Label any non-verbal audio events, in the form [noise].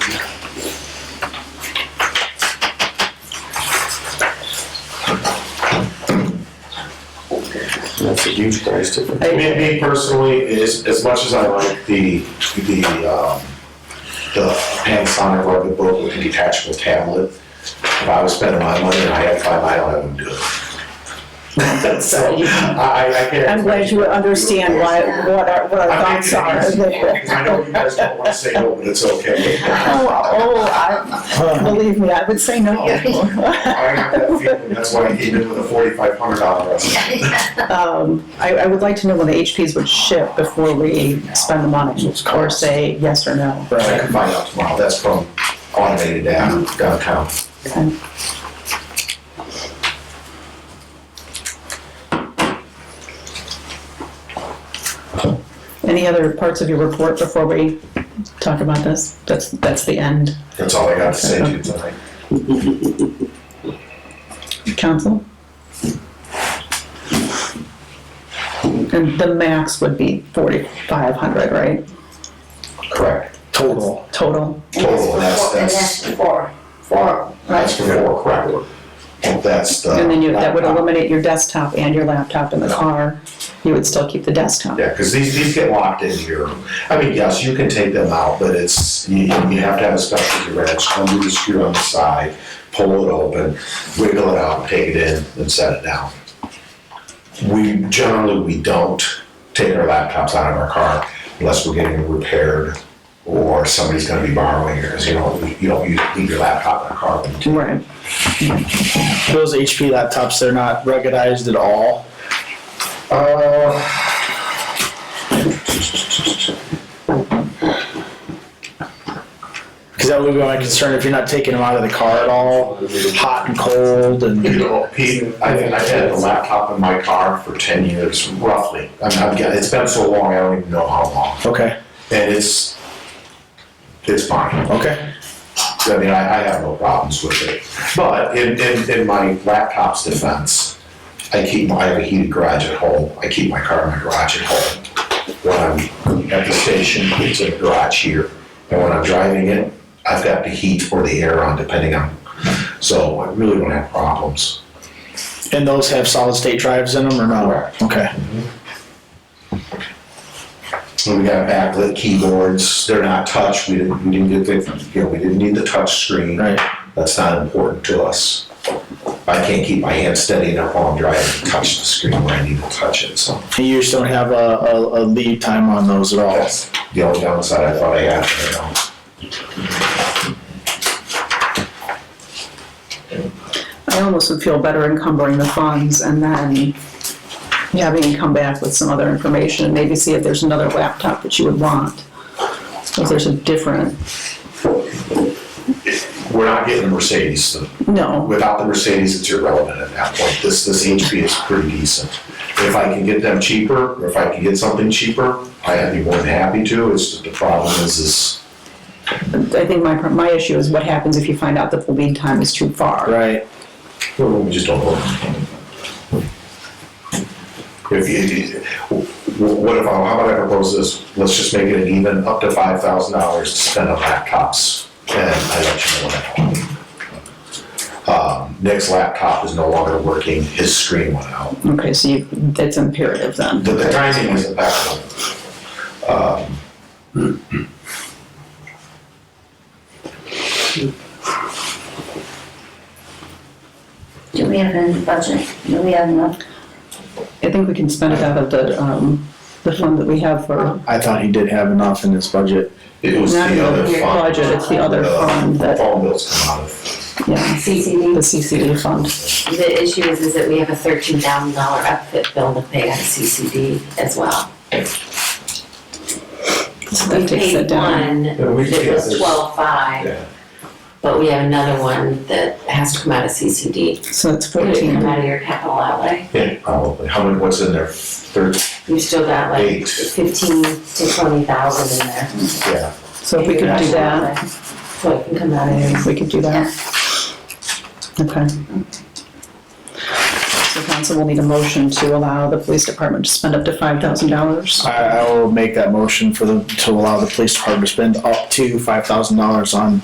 And That's a huge price difference. Me, me personally, is, as much as I like the, the, um, the Panasonic rugged book with the detachable tablet, if I was spending my money and I had five, I don't have them do it. So, I, I- I can't. I'm glad you understand why, what our, what our I'm thoughts making are. it [laughs] easy. I know you guys don't want to say no, but it's okay. Oh, oh, I, believe me, I would say [laughs] no. I have that feeling, that's why I came in with a forty-five hundred dollar estimate. Um, I, I would like to know when the HPs would ship before we spend the money, or say yes or no. I can find out tomorrow, that's from automated down, downtown. Okay. Any other parts of your report before we talk about this? That's, that's the end, That's all I got to say to you tonight. council? And the max would be forty-five hundred, right, Correct. total. total? Total, and that's- And that's- that's four, four, That's right? for four, correct. And That's the. And then you, that would laptop. eliminate your desktop and your laptop in the car, you would still keep the desktop. Yeah, because these, these get locked in here. I mean, yes, you can take them out, but it's, you, you have to have a specialty wrench, undo the screw on the side, pull it open, wiggle it out, take it in, and set it down. We, generally, we don't take our laptops out of our car unless we're getting repaired or somebody's gonna be borrowing yours, you know, you don't, you leave your laptop in a car. when you take- Right. Those HP laptops, they're not ruggedized at all. Uh, Because that would be my concern if you're not taking them out of the car at all, hot and cold you and. know, Pete, I think I've had the laptop in my car for ten years, roughly. I mean, I've got, it's been so long, I don't even know how long. Okay, and it's it's fine. okay. I mean, I, I have no problems with it. But in, in, in my laptop's defense, I keep my, I have a heated garage at home. I keep my car in my garage at home. When I'm at the station, it's in the garage here, and when I'm driving it, I've got the heat or the air on, depending on. So I really don't have problems. And those have solid state drives in them or no? Correct. Okay. And we got backlit keyboards. They're not touch. We didn't we didn't get the you know we didn't need the touch screen. Right. That's not important to us. I can't keep my hand steady enough while I'm driving to touch the screen where I need to touch it, so And you just don't have a, a, a lead time on those at all. that's the only downside I thought I had, you know. I almost would feel better encumbering the funds and then having you come back with some other information and maybe see if there's another laptop that you would want. If there's a different, We're not getting a Mercedes, so no, without the Mercedes, it's irrelevant at that point. This, this HP is pretty decent. If I can get them cheaper, or if I can get something cheaper, I'd be more than happy to, it's just the problem is, is I think my, my issue is what happens if you find out that the lead time is too far. Right. well, we just don't know. If you, wh- what if, I- how about I propose this, let's just make it an even, up to five thousand dollars to spend on laptops, and I let you know what I want. Um, Nick's laptop is no longer working, his screen went out. Okay, so you, that's imperative then. The, the timing is impeccable. Do we have any budget? Do we have enough? I think we can spend it out of the, um, the fund that we have for, I thought he did have enough in his budget. It was not the other the fund. budget, it's the other fund The that, phone bills come out of. yeah, the CCD. CCD fund. The issue is, is that we have a thirteen thousand dollar upfit bill to pay on CCD as well. So We that takes paid it down. one that Yeah, we- yeah, was there's- twelve-five, but we have another one that has to come out of CCD. So it's Did it come fourteen. out of your capital outlay? Yeah, probably. How many, what's in there? Thirty, We've still got like Eight. fifteen to twenty thousand in there. yeah. So if we could do that. So it can come out of there. We could do that. Okay. So so council will need a motion to allow the police department to spend up to five thousand dollars. I, I will make that motion for the, to allow the police department to spend up to five thousand dollars on